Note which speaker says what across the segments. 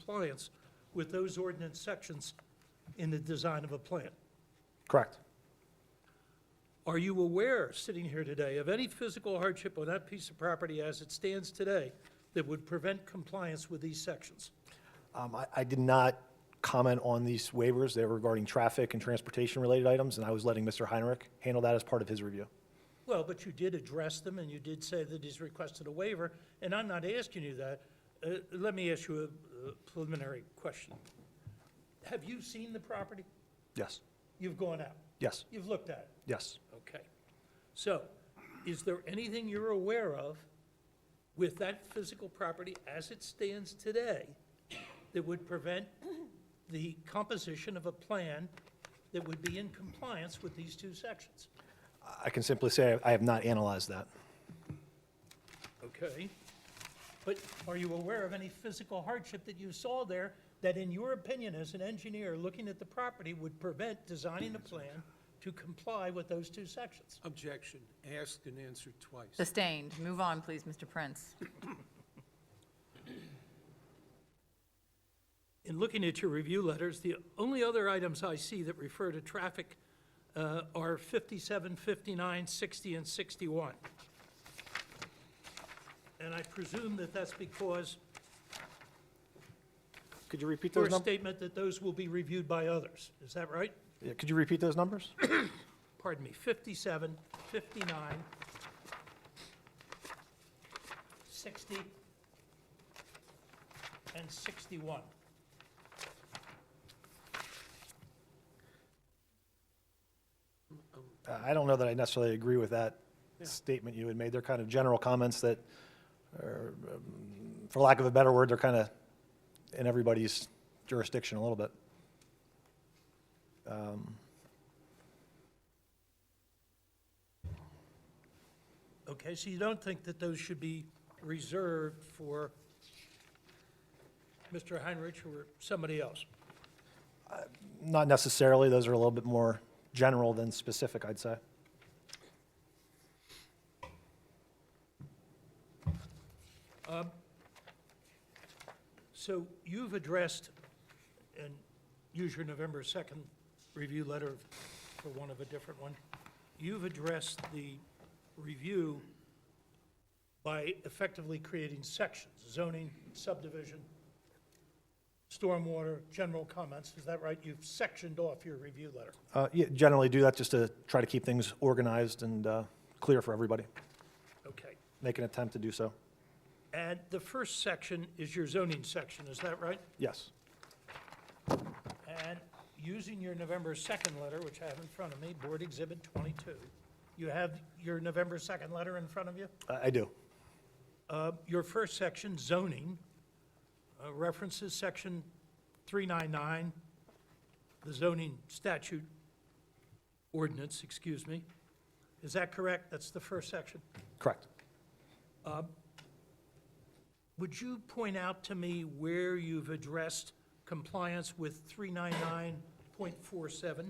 Speaker 1: compliance with those ordinance sections in the design of a plant.
Speaker 2: Correct.
Speaker 1: Are you aware, sitting here today, of any physical hardship on that piece of property as it stands today that would prevent compliance with these sections?
Speaker 2: Um, I, I did not comment on these waivers. They were regarding traffic and transportation-related items, and I was letting Mr. Heinrich handle that as part of his review.
Speaker 1: Well, but you did address them, and you did say that he's requested a waiver, and I'm not asking you that. Uh, Let me ask you a uh, preliminary question. Have you seen the property?
Speaker 2: Yes,
Speaker 1: You've gone out,
Speaker 2: yes,
Speaker 1: you've looked at it.
Speaker 2: yes.
Speaker 1: Okay. So, is there anything you're aware of with that physical property as it stands today that would prevent the composition of a plan that would be in compliance with these two sections?
Speaker 2: I can simply say I have not analyzed that.
Speaker 1: Okay. But are you aware of any physical hardship that you saw there that, in your opinion, as an engineer looking at the property, would prevent designing a plan to comply with those two sections?
Speaker 3: Objection, asked and answered twice.
Speaker 4: Sustained. Move on, please, Mr. Prince.
Speaker 1: In looking at your review letters, the only other items I see that refer to traffic uh, are 57, 59, 60, and 61. And I presume that that's because,
Speaker 2: Could you repeat
Speaker 1: for
Speaker 2: those
Speaker 1: a
Speaker 2: numbers?
Speaker 1: statement that those will be reviewed by others. Is that right?
Speaker 2: Could you repeat those numbers?
Speaker 1: pardon me, 57, 59, 60, and 61.
Speaker 2: Uh, I don't know that I necessarily agree with that statement you had made. They're kind of general comments that, are, um, for lack of a better word, they're kind of in everybody's jurisdiction a little bit.
Speaker 1: Okay, so you don't think that those should be reserved for Mr. Heinrich or somebody else?
Speaker 2: Not necessarily, those are a little bit more general than specific, I'd say.
Speaker 1: So you've addressed, and use your November 2nd review letter for one of a different one. You've addressed the review by effectively creating sections, zoning, subdivision, stormwater, general comments. Is that right? You've sectioned off your review letter.
Speaker 2: Uh, yeah, Generally do that just to try to keep things organized and uh, clear for everybody.
Speaker 1: Okay.
Speaker 2: Make an attempt to do so.
Speaker 1: And the first section is your zoning section, is that right?
Speaker 2: Yes,
Speaker 1: And using your November 2nd letter, which I have in front of me, Board Exhibit 22, you have your November 2nd letter in front of you?
Speaker 2: I I do.
Speaker 1: Uh, Your first section, zoning, uh, references Section 399, the zoning statute ordinance, excuse me. Is that correct? That's the first section.
Speaker 2: Correct.
Speaker 1: Would you point out to me where you've addressed compliance with 399.47?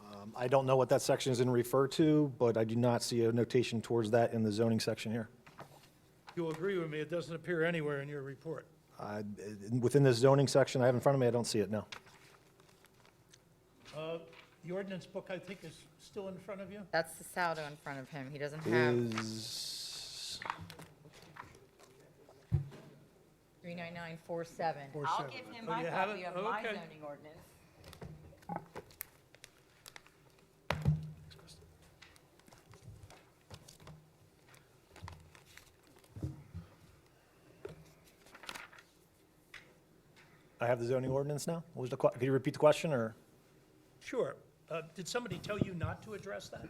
Speaker 2: Um, I don't know what that section is in refer to, but I do not see a notation towards that in the zoning section here.
Speaker 1: You'll agree with me, it doesn't appear anywhere in your report.
Speaker 2: I- in- Within this zoning section I have in front of me, I don't see it, no.
Speaker 1: The ordinance book, I think, is still in front of you?
Speaker 4: That's the saldo in front of him. He doesn't have
Speaker 2: Is,
Speaker 4: 39947.
Speaker 5: I'll give him
Speaker 1: Oh,
Speaker 5: my
Speaker 1: you have
Speaker 5: copy
Speaker 1: it?
Speaker 5: of my
Speaker 1: Okay.
Speaker 5: zoning ordinance.
Speaker 2: I have the zoning ordinance now? What was the, que- could you repeat the question, or
Speaker 1: Sure. Uh, Did somebody tell you not to address that,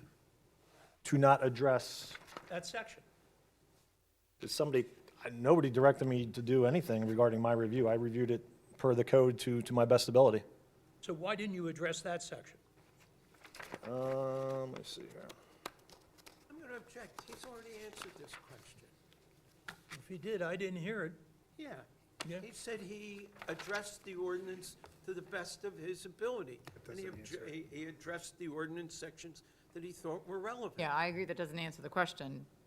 Speaker 2: to not address,
Speaker 1: that section?
Speaker 2: is somebody, I- nobody directed me to do anything regarding my review. I reviewed it per the code to, to my best ability.
Speaker 1: So why didn't you address that section?
Speaker 2: Um, let's see here.
Speaker 3: I'm going to object, he's already answered this question.
Speaker 1: If you did, I didn't hear it. Yeah.
Speaker 3: Yeah, he said he addressed the ordinance to the best of his ability. And he obje- he he addressed the ordinance sections that he thought were relevant.
Speaker 4: Yeah, I agree that doesn't answer the question.